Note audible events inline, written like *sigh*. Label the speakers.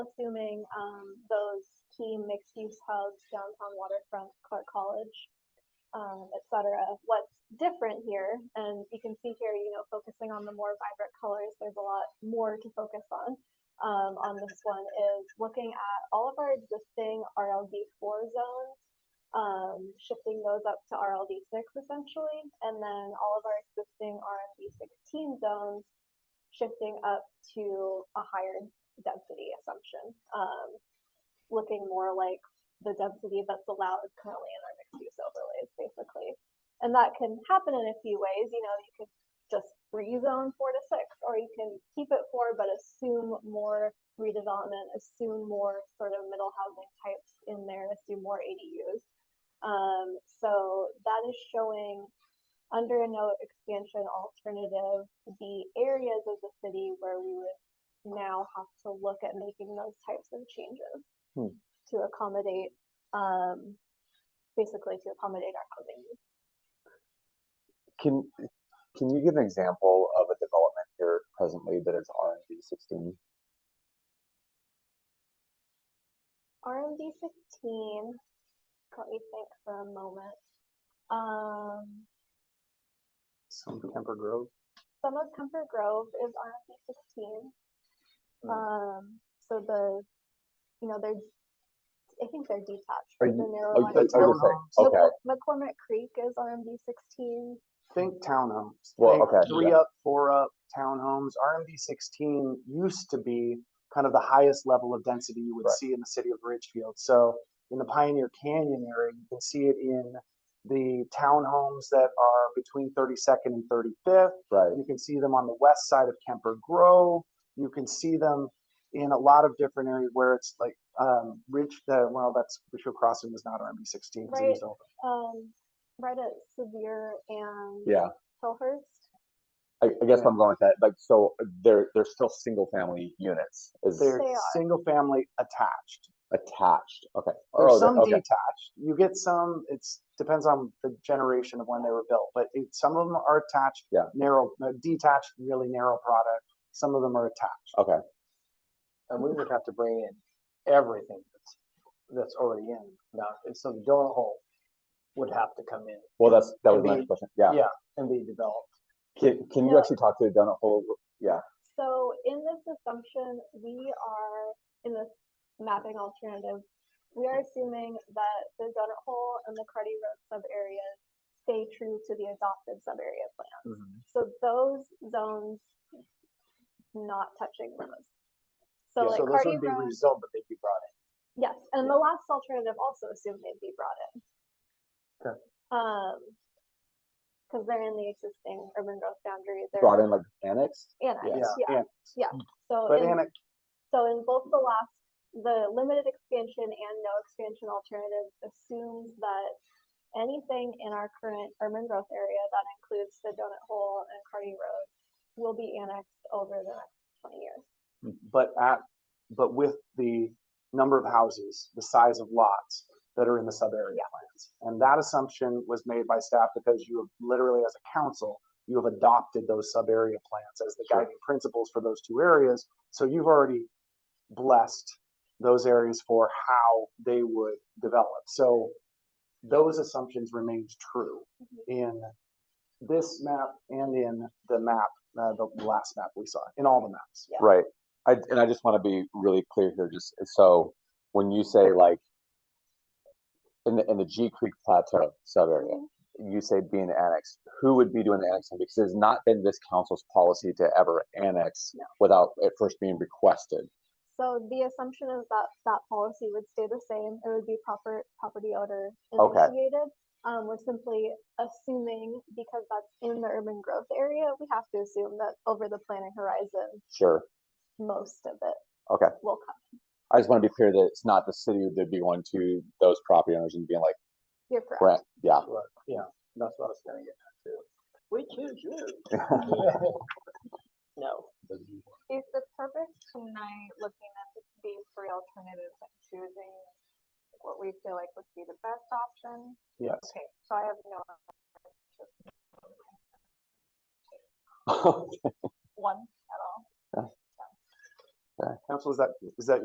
Speaker 1: assuming, um, those key mixed-use hubs, downtown waterfront, Clark College, um, et cetera. What's different here, and you can see here, you know, focusing on the more vibrant colors, there's a lot more to focus on. Um, on this one is looking at all of our existing RLD four zones, um, shifting those up to RLD six essentially, and then all of our existing RMD sixteen zones shifting up to a higher density assumption, um, looking more like the density that's allowed currently in our mixed use overlays, basically. And that can happen in a few ways. You know, you could just rezone four to six, or you can keep it four, but assume more redevelopment, assume more sort of middle housing types in there, assume more ADUs. Um, so that is showing under a no expansion alternative, the areas of the city where we would now have to look at making those types of changes
Speaker 2: Hmm.
Speaker 1: to accommodate, um, basically to accommodate our housing needs.
Speaker 2: Can, can you give an example of a development here presently that is RMD sixteen?
Speaker 1: RMD sixteen. Let me think for a moment. Um,
Speaker 3: Some Kemper Grove.
Speaker 1: some of Comfort Grove is RMD sixteen.
Speaker 2: Hmm.
Speaker 1: Um, so the, you know, they're, I think they're detached.
Speaker 2: Are
Speaker 1: from the
Speaker 2: you-
Speaker 1: narrow
Speaker 2: Oh,
Speaker 1: line.
Speaker 2: that's what you're saying. Okay,
Speaker 1: McCor- McCormick Creek is RMD sixteen.
Speaker 3: Think townhomes.
Speaker 2: Well,
Speaker 3: Think
Speaker 2: okay,
Speaker 3: Three
Speaker 2: yeah.
Speaker 3: up, four up, townhomes. RMD sixteen used to be kind of the highest level of density you would
Speaker 2: Right.
Speaker 3: see in the city of Ridgefield. So in the Pioneer Canyon area, you can see it in the townhomes that are between thirty second and thirty fifth.
Speaker 2: right,
Speaker 3: You can see them on the west side of Kemper Grove. You can see them in a lot of different areas where it's like, um, Ridge, uh, well, that's, Ridgefield Crossing was not RMB sixteen. 'cause it was
Speaker 1: Right.
Speaker 3: over.
Speaker 1: Um, right at Sevier and
Speaker 2: yeah.
Speaker 1: Hillhurst.
Speaker 2: I, I guess I'm going with that, like, so they're, they're still single family units is
Speaker 3: They're
Speaker 1: They are.
Speaker 3: single family attached.
Speaker 2: attached, okay.
Speaker 3: There's
Speaker 2: Oh, they're-
Speaker 3: some
Speaker 2: okay,
Speaker 3: detached. You get some, it's, depends on the generation of when they were built, but it, some of them are attached.
Speaker 2: Yeah.
Speaker 3: Narrow, uh, detached, really narrow product. Some of them are attached.
Speaker 2: okay,
Speaker 4: And we would have to bring in everything that's, that's already in, now, so the donut hole would have to come in
Speaker 2: well, that's, that was
Speaker 4: Could
Speaker 2: my
Speaker 4: be-
Speaker 2: next question, yeah.
Speaker 4: yeah. and be developed.
Speaker 2: Can, can you
Speaker 1: Yeah.
Speaker 2: actually talk to Donna Hole? Yeah,
Speaker 1: So in this assumption, we are, in this mapping alternative, we are assuming that the donut hole and the Cardi Road subareas stay true to the adopted subarea plan.
Speaker 2: Mm-hmm.
Speaker 1: So those zones not touching those. So
Speaker 4: Yeah,
Speaker 1: like
Speaker 4: So those
Speaker 1: Cardi
Speaker 4: would be
Speaker 1: Road,
Speaker 4: rezoned, but they'd be brought in.
Speaker 1: yes, and the last alternative also assumed they'd be brought in.
Speaker 4: Okay.
Speaker 1: Um, cause they're in the existing urban growth boundary, they're
Speaker 2: brought in like annexed,
Speaker 1: annexed,
Speaker 4: Yeah,
Speaker 1: yeah,
Speaker 3: And,
Speaker 1: so.
Speaker 3: but
Speaker 1: in-
Speaker 3: annex,
Speaker 1: so in both the last, the limited expansion and no expansion alternatives assumes that anything in our current urban growth area that includes the donut hole and Cardi Road will be annexed over the next twenty years.
Speaker 3: but at, but with the number of houses, the size of lots that are in the sub area plans. And that assumption was made by staff because you have literally as a council, you have adopted those sub area plans as the
Speaker 2: Sure.
Speaker 3: guiding principles for those two areas. So you've already blessed those areas for how they would develop. So those assumptions remained true
Speaker 1: Mhm.
Speaker 3: in this map and in the map, uh, the last map we saw, in all the maps.
Speaker 1: Yeah.
Speaker 2: right? I, and I just want to be really clear here, just so when you say like in the, in the G Creek Plateau sub area,
Speaker 1: Mhm.
Speaker 2: you say being annexed, who would be doing the annexing? Because it's not been this council's policy to ever annex
Speaker 1: No.
Speaker 2: without it first being requested.
Speaker 1: So the assumption is that that policy would stay the same, it would be proper, property owner
Speaker 2: Okay.
Speaker 1: initiated. Um, we're simply assuming, because that's in the urban growth area, we have to assume that over the planning horizon,
Speaker 2: Sure.
Speaker 1: most of it
Speaker 2: Okay.
Speaker 1: will come.
Speaker 2: I just want to be clear that it's not the city that'd be going to those property owners and being like,
Speaker 1: You're correct.
Speaker 2: "Brett, yeah, *laughs*
Speaker 4: Right, yeah, that's what I was gonna get at too. We choose you. No.
Speaker 1: Is the purpose tonight looking at the- these three alternatives and choosing what we feel like would be the best option?
Speaker 3: Yes.
Speaker 1: Okay, so I have no one at all.
Speaker 3: Council, is that, is that